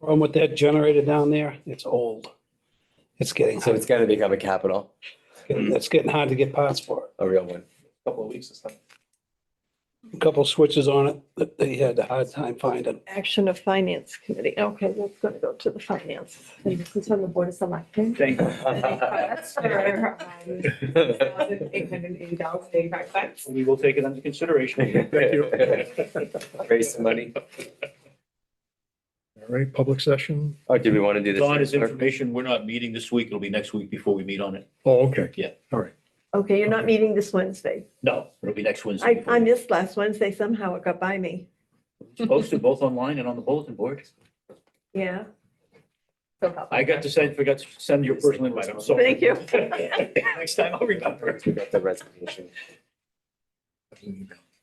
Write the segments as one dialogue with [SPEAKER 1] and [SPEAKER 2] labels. [SPEAKER 1] Problem with that generator down there, it's old. It's getting,
[SPEAKER 2] So it's gonna become a capital,
[SPEAKER 1] it's getting hard to get parts for it.
[SPEAKER 2] a real one.
[SPEAKER 3] couple of weeks or something.
[SPEAKER 1] A Couple switches on it that they had a hard time finding.
[SPEAKER 4] Action of Finance Committee. Okay, that's going to go to the finance. And this is on the Board of Selectmen.
[SPEAKER 3] Thank
[SPEAKER 4] That's for, um, $1,880.85.
[SPEAKER 3] We will take it under consideration.
[SPEAKER 2] Raise some money.
[SPEAKER 5] All right, public session.
[SPEAKER 2] Oh, do we want to do this?
[SPEAKER 3] Don is
[SPEAKER 2] next?
[SPEAKER 3] information, we're not meeting this week, it'll be next week before we meet on it.
[SPEAKER 5] Oh, okay.
[SPEAKER 3] Yeah.
[SPEAKER 5] All right.
[SPEAKER 4] Okay, you're not meeting this Wednesday.
[SPEAKER 3] No, it'll be next Wednesday.
[SPEAKER 4] I, I missed last Wednesday somehow. It got by me.
[SPEAKER 3] It's Posted both online and on the bulletin board.
[SPEAKER 4] Yeah.
[SPEAKER 3] I got to send, forgot to send your personal invite, I'm sorry.
[SPEAKER 4] Thank you.
[SPEAKER 3] Next time I'll remember.
[SPEAKER 2] We got the resignation.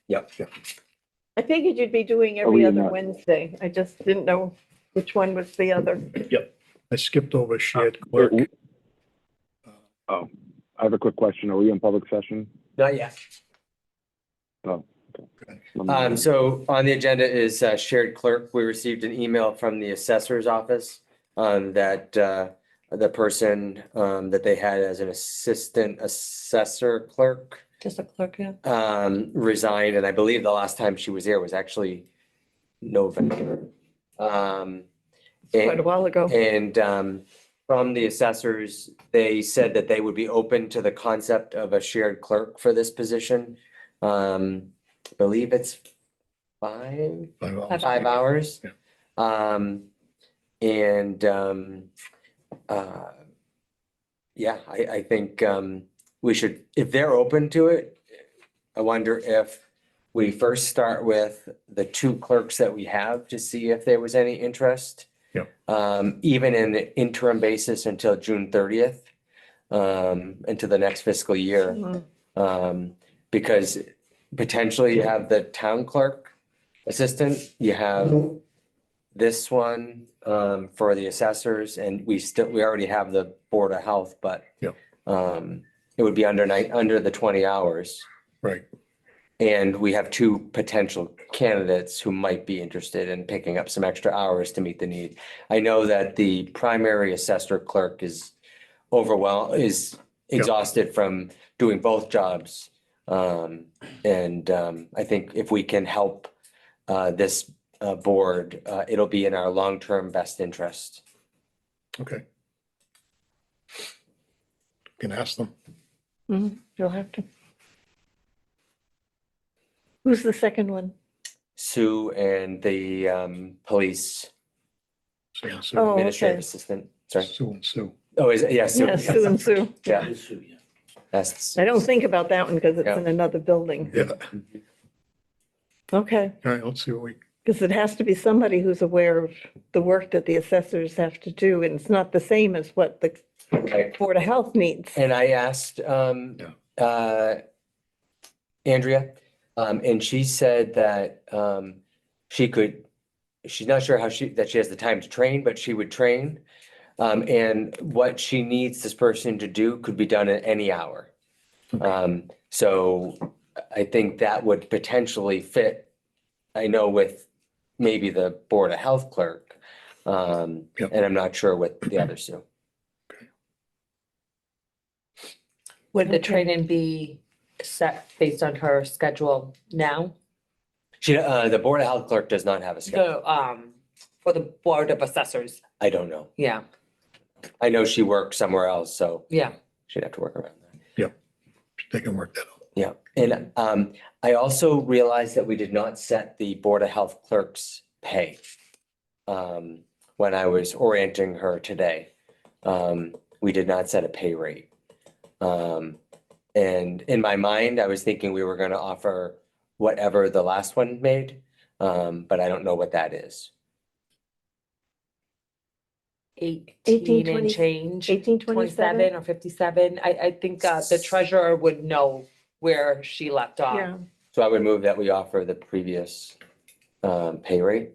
[SPEAKER 2] Yep.
[SPEAKER 4] I figured you'd
[SPEAKER 2] Oh,
[SPEAKER 4] be doing every other Wednesday. I just didn't know which one was the other.
[SPEAKER 5] I skipped over shared clerk.
[SPEAKER 6] Oh, I have a quick question. Are we in public session?
[SPEAKER 2] Not yet.
[SPEAKER 6] Let me-
[SPEAKER 2] Um, so on the agenda is uh, shared clerk. We received an email from the assessor's office um, that uh, the person um, that they had as an assistant assessor clerk
[SPEAKER 4] Just a clerk, yeah.
[SPEAKER 2] um, resigned, and I believe the last time she was here was actually November. Um,
[SPEAKER 4] Quite a
[SPEAKER 2] and,
[SPEAKER 4] while ago.
[SPEAKER 2] and um, from the assessors, they said that they would be open to the concept of a shared clerk for this position. Um, believe it's five, five hours.
[SPEAKER 5] Yeah.
[SPEAKER 2] Um, and, um, uh, yeah, I, I think, um, we should, if they're open to it, I wonder if we first start with the two clerks that we have to see if there was any interest.
[SPEAKER 5] Yeah.
[SPEAKER 2] Um, even in the interim basis until June thirtieth, um, into the next fiscal year.
[SPEAKER 4] Mhm.
[SPEAKER 2] Um, because potentially you have the town clerk assistant, you have
[SPEAKER 5] Mm-hmm.
[SPEAKER 2] this one, um, for the assessors and we still, we already have the Board of Health, but
[SPEAKER 5] Yeah.
[SPEAKER 2] um, it would be under nine, under the twenty hours.
[SPEAKER 5] Right.
[SPEAKER 2] And we have two potential candidates who might be interested in picking up some extra hours to meet the need. I know that the primary assessor clerk is overwhelmed, is
[SPEAKER 5] Yeah.
[SPEAKER 2] exhausted from doing both jobs. Um, and, um, I think if we can help, uh, this, uh, board, uh, it'll be in our long-term best interest.
[SPEAKER 5] Okay. Can ask them.
[SPEAKER 2] eh.
[SPEAKER 4] Mhm. You'll have to. Who's the second one?
[SPEAKER 2] Sue and the, um, police
[SPEAKER 5] Sue and Sue.
[SPEAKER 4] Oh,
[SPEAKER 2] administrative
[SPEAKER 4] okay.
[SPEAKER 2] assistant, sorry.
[SPEAKER 5] Sue and Sue.
[SPEAKER 2] Oh, is it, yeah, Sue.
[SPEAKER 4] Yeah, Sue and Sue.
[SPEAKER 2] Yeah, that's,
[SPEAKER 4] I don't think about that one because it's
[SPEAKER 2] Yeah.
[SPEAKER 4] in another building.
[SPEAKER 5] Yeah. All
[SPEAKER 2] Mm-hmm.
[SPEAKER 4] Okay,
[SPEAKER 5] right, let's see what we,
[SPEAKER 4] because it has to be somebody who's aware of the work that the assessors have to do, and it's not the same as what the
[SPEAKER 2] okay.
[SPEAKER 4] Board of Health needs.
[SPEAKER 2] And I asked, um, uh, Andrea, um, and she said that, um, she could, she's not sure how she, that she has the time to train, but she would train. Um, and what she needs this person to do could be done at any hour. Um, so I think that would potentially fit, I know with maybe the Board of Health clerk. Um,
[SPEAKER 5] Yep.
[SPEAKER 2] and I'm not sure with the other Sue.
[SPEAKER 7] Would the
[SPEAKER 4] Okay.
[SPEAKER 7] trade-in be set based on her schedule now?
[SPEAKER 2] She, uh, the Board of Health clerk does not have a schedule.
[SPEAKER 7] So, um, for the Board of Assessors,
[SPEAKER 2] I don't know.
[SPEAKER 7] yeah,
[SPEAKER 2] I know she worked somewhere else, so
[SPEAKER 7] yeah.
[SPEAKER 2] she'd have to work around that.
[SPEAKER 5] they can work that out.
[SPEAKER 2] Yeah, and um, I also realized that we did not set the Board of Health clerk's pay. Um, when I was orienting her today, um, we did not set a pay rate. Um, and in my mind, I was thinking we were gonna offer whatever the last one made, um, but I don't know what that is.
[SPEAKER 7] Eighteen and
[SPEAKER 4] 20
[SPEAKER 7] change,
[SPEAKER 4] Eighteen twenty-seven?
[SPEAKER 7] twenty-seven or fifty-seven, I, I think, uh, the treasurer would know where she left
[SPEAKER 4] Yeah,
[SPEAKER 7] off.
[SPEAKER 2] So I would move that we offer the previous um pay rate.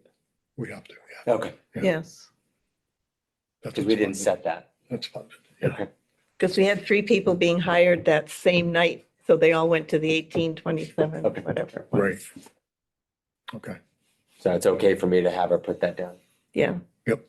[SPEAKER 5] We have to, yeah.
[SPEAKER 2] Okay,
[SPEAKER 5] Yeah.
[SPEAKER 4] yes.
[SPEAKER 5] That's
[SPEAKER 2] because we didn't
[SPEAKER 5] funded.
[SPEAKER 2] set that.
[SPEAKER 5] That's funded.
[SPEAKER 2] Okay.
[SPEAKER 4] Because we had three people being hired that same night, so they all went to the eighteen twenty-seven,
[SPEAKER 2] Okay.
[SPEAKER 4] whatever. it was.
[SPEAKER 5] Right. Okay.
[SPEAKER 2] So it's okay for me to have her put that down?
[SPEAKER 4] Yeah.